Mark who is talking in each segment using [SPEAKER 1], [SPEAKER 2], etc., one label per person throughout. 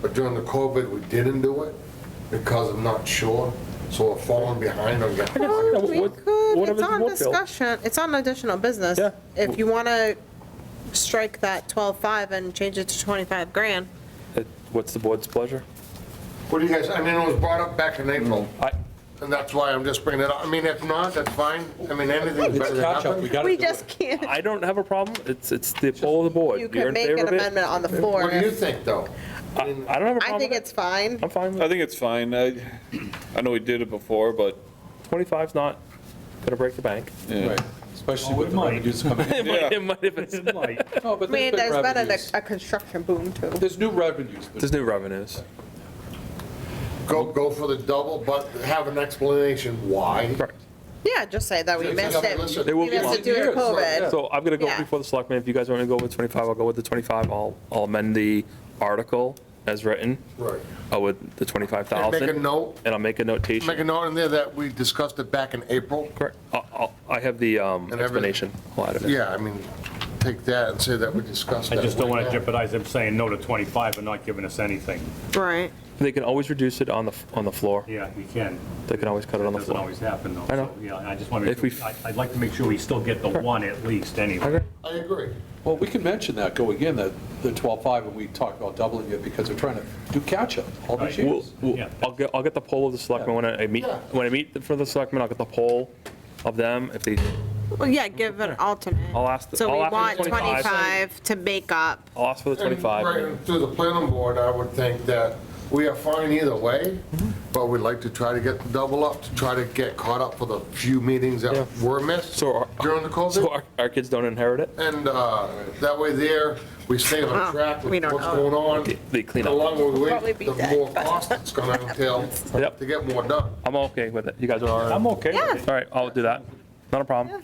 [SPEAKER 1] But during the COVID, we didn't do it because I'm not sure. So we're falling behind on getting
[SPEAKER 2] Yeah,
[SPEAKER 1] money.
[SPEAKER 2] what-
[SPEAKER 1] Well,
[SPEAKER 2] We what- could, what if it's it's on wood built? discussion, it's on additional business.
[SPEAKER 3] Yeah.
[SPEAKER 2] If you want to strike that 12.5 and change it to 25 grand,
[SPEAKER 3] It- What's the board's pleasure?
[SPEAKER 1] What do you guys, I mean, it was brought up back in April,
[SPEAKER 3] I,
[SPEAKER 1] and that's why I'm just bringing it up. I mean, if not, that's fine. I mean, anything's
[SPEAKER 4] It's
[SPEAKER 1] better
[SPEAKER 4] a
[SPEAKER 1] than
[SPEAKER 4] catch-up, we
[SPEAKER 1] nothing.
[SPEAKER 4] gotta
[SPEAKER 2] we
[SPEAKER 4] do it.
[SPEAKER 2] just can't,
[SPEAKER 3] I don't have a problem. It's, it's the poll of the board.
[SPEAKER 2] you
[SPEAKER 3] You're
[SPEAKER 2] could
[SPEAKER 3] in
[SPEAKER 2] make
[SPEAKER 3] favor
[SPEAKER 2] an
[SPEAKER 3] of it?
[SPEAKER 2] amendment on the floor.
[SPEAKER 1] What do you think, though?
[SPEAKER 3] I I don't have a problem
[SPEAKER 2] I think
[SPEAKER 3] with it.
[SPEAKER 2] it's fine.
[SPEAKER 3] I'm fine with
[SPEAKER 5] I
[SPEAKER 3] it.
[SPEAKER 5] think it's fine. I, I know we did it before, but,
[SPEAKER 3] 25's not gonna break the bank.
[SPEAKER 5] yeah.
[SPEAKER 3] Oh,
[SPEAKER 4] Especially with the revenues coming in.
[SPEAKER 5] Yeah.
[SPEAKER 3] It might if it's-
[SPEAKER 4] No, but
[SPEAKER 2] I mean,
[SPEAKER 4] there's
[SPEAKER 2] there's
[SPEAKER 4] been
[SPEAKER 2] been a,
[SPEAKER 4] revenues.
[SPEAKER 2] a construction boom too.
[SPEAKER 4] There's new revenues.
[SPEAKER 3] There's new revenues.
[SPEAKER 1] Go, go for the double, but have an explanation why.
[SPEAKER 3] Correct.
[SPEAKER 2] Yeah, just say that we
[SPEAKER 1] Yeah,
[SPEAKER 2] missed
[SPEAKER 1] yeah,
[SPEAKER 2] it.
[SPEAKER 1] listen.
[SPEAKER 3] There will
[SPEAKER 2] We
[SPEAKER 3] be
[SPEAKER 2] missed
[SPEAKER 3] one.
[SPEAKER 2] it due to
[SPEAKER 4] Years, yeah.
[SPEAKER 2] COVID.
[SPEAKER 3] So I'm gonna go
[SPEAKER 2] Yeah.
[SPEAKER 3] before the selectmen. If you guys wanna go with 25, I'll go with the 25. I'll, I'll amend the article as written
[SPEAKER 1] Right.
[SPEAKER 3] uh, with the
[SPEAKER 1] And make a
[SPEAKER 3] 25,000.
[SPEAKER 1] note,
[SPEAKER 3] And I'll
[SPEAKER 1] make
[SPEAKER 3] make a
[SPEAKER 1] a
[SPEAKER 3] notation.
[SPEAKER 1] note in there that we discussed it back in April.
[SPEAKER 3] Correct. I'll- I'll, I have the um,
[SPEAKER 1] And everything.
[SPEAKER 3] explanation. I'll add it in.
[SPEAKER 1] Yeah, I mean, take that and say that we discussed
[SPEAKER 6] I
[SPEAKER 1] that.
[SPEAKER 6] just don't want to
[SPEAKER 1] way back.
[SPEAKER 6] jeopardize them saying no to 25 and not giving us anything.
[SPEAKER 2] Right.
[SPEAKER 3] They can always reduce it on the, on the floor.
[SPEAKER 6] Yeah, you can.
[SPEAKER 3] They can always cut it on the
[SPEAKER 6] Doesn't
[SPEAKER 3] floor.
[SPEAKER 6] always happen, though.
[SPEAKER 3] I know.
[SPEAKER 6] So, Yeah, I just want to,
[SPEAKER 3] If we-
[SPEAKER 6] I'd like to make sure we still get the one at least, anyway.
[SPEAKER 3] Okay.
[SPEAKER 1] I agree.
[SPEAKER 4] Well, we can mention that going in, that the 12.5, and we talked about doubling it because we're trying to do catch-up all these
[SPEAKER 6] Right.
[SPEAKER 3] We'll,
[SPEAKER 4] years.
[SPEAKER 3] we'll,
[SPEAKER 6] Yeah.
[SPEAKER 3] I'll get, I'll get the poll of the selectmen when I meet,
[SPEAKER 1] Yeah.
[SPEAKER 3] when I meet for the selectmen, I'll get the poll of them, if they,
[SPEAKER 2] Well, yeah, give an alternate.
[SPEAKER 3] I'll ask the-
[SPEAKER 2] So
[SPEAKER 3] I'll
[SPEAKER 2] we
[SPEAKER 3] ask the
[SPEAKER 2] want
[SPEAKER 3] 25.
[SPEAKER 2] 25 to make up.
[SPEAKER 3] I'll ask for the
[SPEAKER 1] And
[SPEAKER 3] 25.
[SPEAKER 1] right Through the planning board, I would think that we are fine either way,
[SPEAKER 3] Mm-hmm.
[SPEAKER 1] but we'd like to try to get the double up, to try to get caught up for the few meetings
[SPEAKER 3] Yeah.
[SPEAKER 1] that were missed
[SPEAKER 3] So our-
[SPEAKER 1] during the
[SPEAKER 3] So
[SPEAKER 1] COVID.
[SPEAKER 3] our, our kids don't inherit it?
[SPEAKER 1] And uh, that way there, we stay
[SPEAKER 2] Wow,
[SPEAKER 1] on track
[SPEAKER 2] we
[SPEAKER 1] with
[SPEAKER 2] don't
[SPEAKER 1] what's
[SPEAKER 2] know.
[SPEAKER 1] going on.
[SPEAKER 3] They clean
[SPEAKER 1] The
[SPEAKER 3] up.
[SPEAKER 1] longer we
[SPEAKER 2] Probably
[SPEAKER 1] wait,
[SPEAKER 2] be
[SPEAKER 1] the
[SPEAKER 2] dead
[SPEAKER 1] more
[SPEAKER 2] by
[SPEAKER 1] cost it's gonna entail
[SPEAKER 3] Yep.
[SPEAKER 1] to get more done.
[SPEAKER 3] I'm okay with it. You guys are,
[SPEAKER 6] I'm
[SPEAKER 3] all
[SPEAKER 6] okay
[SPEAKER 2] Yeah.
[SPEAKER 6] with it.
[SPEAKER 3] right, I'll do that. Not a problem.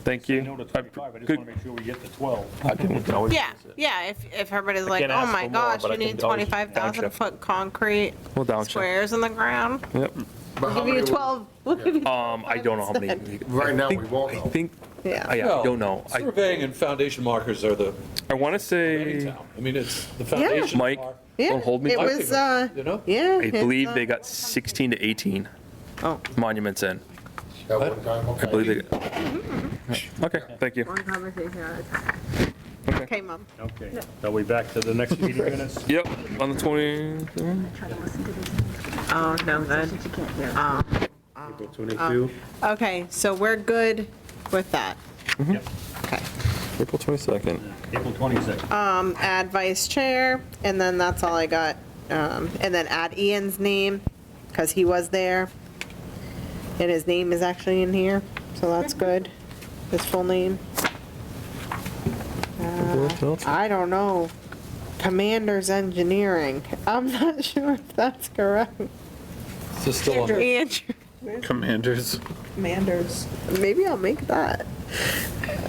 [SPEAKER 3] Thank you.
[SPEAKER 6] No to 25, I just
[SPEAKER 3] Good-
[SPEAKER 6] want to make sure we get the 12.
[SPEAKER 3] I can- we can always
[SPEAKER 2] Yeah,
[SPEAKER 3] use it.
[SPEAKER 2] yeah, if, if everybody's like,
[SPEAKER 3] can't
[SPEAKER 2] oh
[SPEAKER 3] ask for
[SPEAKER 2] my
[SPEAKER 3] more,
[SPEAKER 2] gosh,
[SPEAKER 3] but I
[SPEAKER 2] you
[SPEAKER 3] can
[SPEAKER 2] need
[SPEAKER 3] always
[SPEAKER 2] 25,000
[SPEAKER 3] downshift.
[SPEAKER 2] foot concrete
[SPEAKER 3] We'll downshift.
[SPEAKER 2] squares in the ground.
[SPEAKER 3] Yep.
[SPEAKER 1] But how
[SPEAKER 2] Give you
[SPEAKER 1] many-
[SPEAKER 2] 12, we'll give you,
[SPEAKER 3] Um, I don't know how many.
[SPEAKER 1] Right now, we won't
[SPEAKER 3] I
[SPEAKER 1] know.
[SPEAKER 3] think, I
[SPEAKER 2] yeah.
[SPEAKER 3] yeah, I don't know. I,
[SPEAKER 4] Surveying and foundation markers are the,
[SPEAKER 3] I want to
[SPEAKER 4] any
[SPEAKER 3] say,
[SPEAKER 4] town. I mean, it's, the foundation
[SPEAKER 3] Mike,
[SPEAKER 4] are,
[SPEAKER 2] Yeah,
[SPEAKER 3] don't hold me
[SPEAKER 2] It
[SPEAKER 3] to it.
[SPEAKER 2] was, uh,
[SPEAKER 4] you know?
[SPEAKER 2] yeah.
[SPEAKER 3] I
[SPEAKER 2] it's,
[SPEAKER 3] believe they
[SPEAKER 2] uh,
[SPEAKER 3] got 16 to 18
[SPEAKER 2] Oh.
[SPEAKER 3] monuments in.
[SPEAKER 1] At one time,
[SPEAKER 3] I believe
[SPEAKER 1] okay.
[SPEAKER 3] they, okay, thank you.
[SPEAKER 2] One conversation at a time.
[SPEAKER 3] Okay.
[SPEAKER 2] Okay, mom.
[SPEAKER 6] Okay, are we back to the next meeting minutes?
[SPEAKER 3] Yep, on the 20,
[SPEAKER 2] Oh, no, good.
[SPEAKER 6] April 22.
[SPEAKER 2] Okay, so we're good with that.
[SPEAKER 6] Yep.
[SPEAKER 2] Okay.
[SPEAKER 3] April 22nd.
[SPEAKER 6] April 26.
[SPEAKER 2] Um, add vice chair, and then that's all I got. Um, and then add Ian's name, because he was there. And his name is actually in here, so that's good. His full name. Uh, I don't know. Commander's Engineering. I'm not sure if that's correct.
[SPEAKER 4] Is this still under?
[SPEAKER 2] Andrew.
[SPEAKER 5] Commanders.
[SPEAKER 2] Manders. Maybe I'll make that.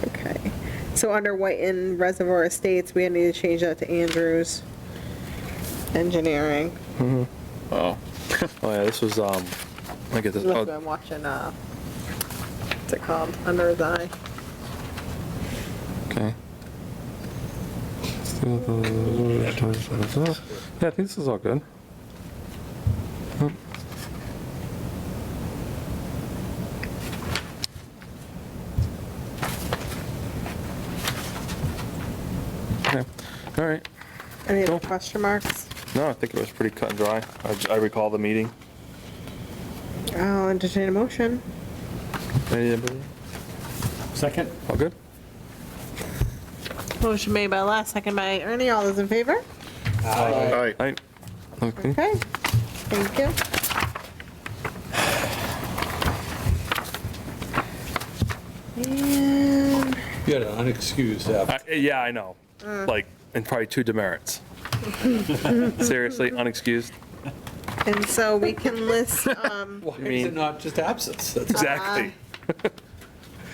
[SPEAKER 2] Okay. So under Whiten Reservoir Estates, we need to change that to Andrews Engineering.
[SPEAKER 5] Oh,
[SPEAKER 3] Oh yeah, this was, um, I get this,
[SPEAKER 2] Look,
[SPEAKER 3] oh,
[SPEAKER 2] I'm watching, uh, what's it called? Under his eye.
[SPEAKER 3] okay. Yeah, I think this is all good. Okay, all right.
[SPEAKER 2] Any other
[SPEAKER 3] Cool.
[SPEAKER 2] question marks?
[SPEAKER 3] No, I think it was pretty cut and dry. I j- I recall the meeting.
[SPEAKER 2] I'll entertain a motion.
[SPEAKER 3] Anybody?
[SPEAKER 6] Second?
[SPEAKER 3] All good?
[SPEAKER 2] Motion made by Les, second by Ernie. All those in favor?
[SPEAKER 5] all right.
[SPEAKER 3] Aye. Okay.
[SPEAKER 2] Okay. Thank you. And
[SPEAKER 4] You had an unexcused absence.
[SPEAKER 3] I- Uh, Yeah, I know.
[SPEAKER 2] Mm.
[SPEAKER 3] Like, and probably two demerits. Seriously, unexcused.
[SPEAKER 2] Uh-huh. And so we can list, um,
[SPEAKER 4] Why is
[SPEAKER 3] mean-
[SPEAKER 4] it not just absence? That's
[SPEAKER 3] Exactly.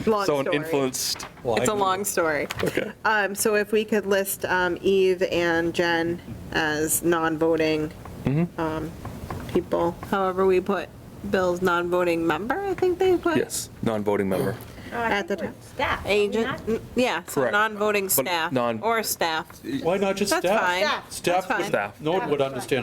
[SPEAKER 2] long
[SPEAKER 3] Someone
[SPEAKER 2] story.
[SPEAKER 3] influenced.
[SPEAKER 4] why.
[SPEAKER 2] It's a long story.
[SPEAKER 3] Okay.
[SPEAKER 2] Um, so if we could list, um, Eve and Jen as non-voting, um, people, however we put Bill's non-voting member, I think they put.
[SPEAKER 3] Yes, non-voting member.
[SPEAKER 2] At the time.
[SPEAKER 7] Staff. are we not?
[SPEAKER 2] Agent, yeah, so
[SPEAKER 3] Correct.
[SPEAKER 2] non-voting
[SPEAKER 3] But
[SPEAKER 2] staff
[SPEAKER 3] non-
[SPEAKER 2] or staff.
[SPEAKER 4] Why not just
[SPEAKER 2] That's
[SPEAKER 4] staff?
[SPEAKER 2] fine.
[SPEAKER 7] Staff.
[SPEAKER 2] That's
[SPEAKER 4] Staff,
[SPEAKER 2] fine.
[SPEAKER 4] would-
[SPEAKER 3] Staff.
[SPEAKER 4] no one would understand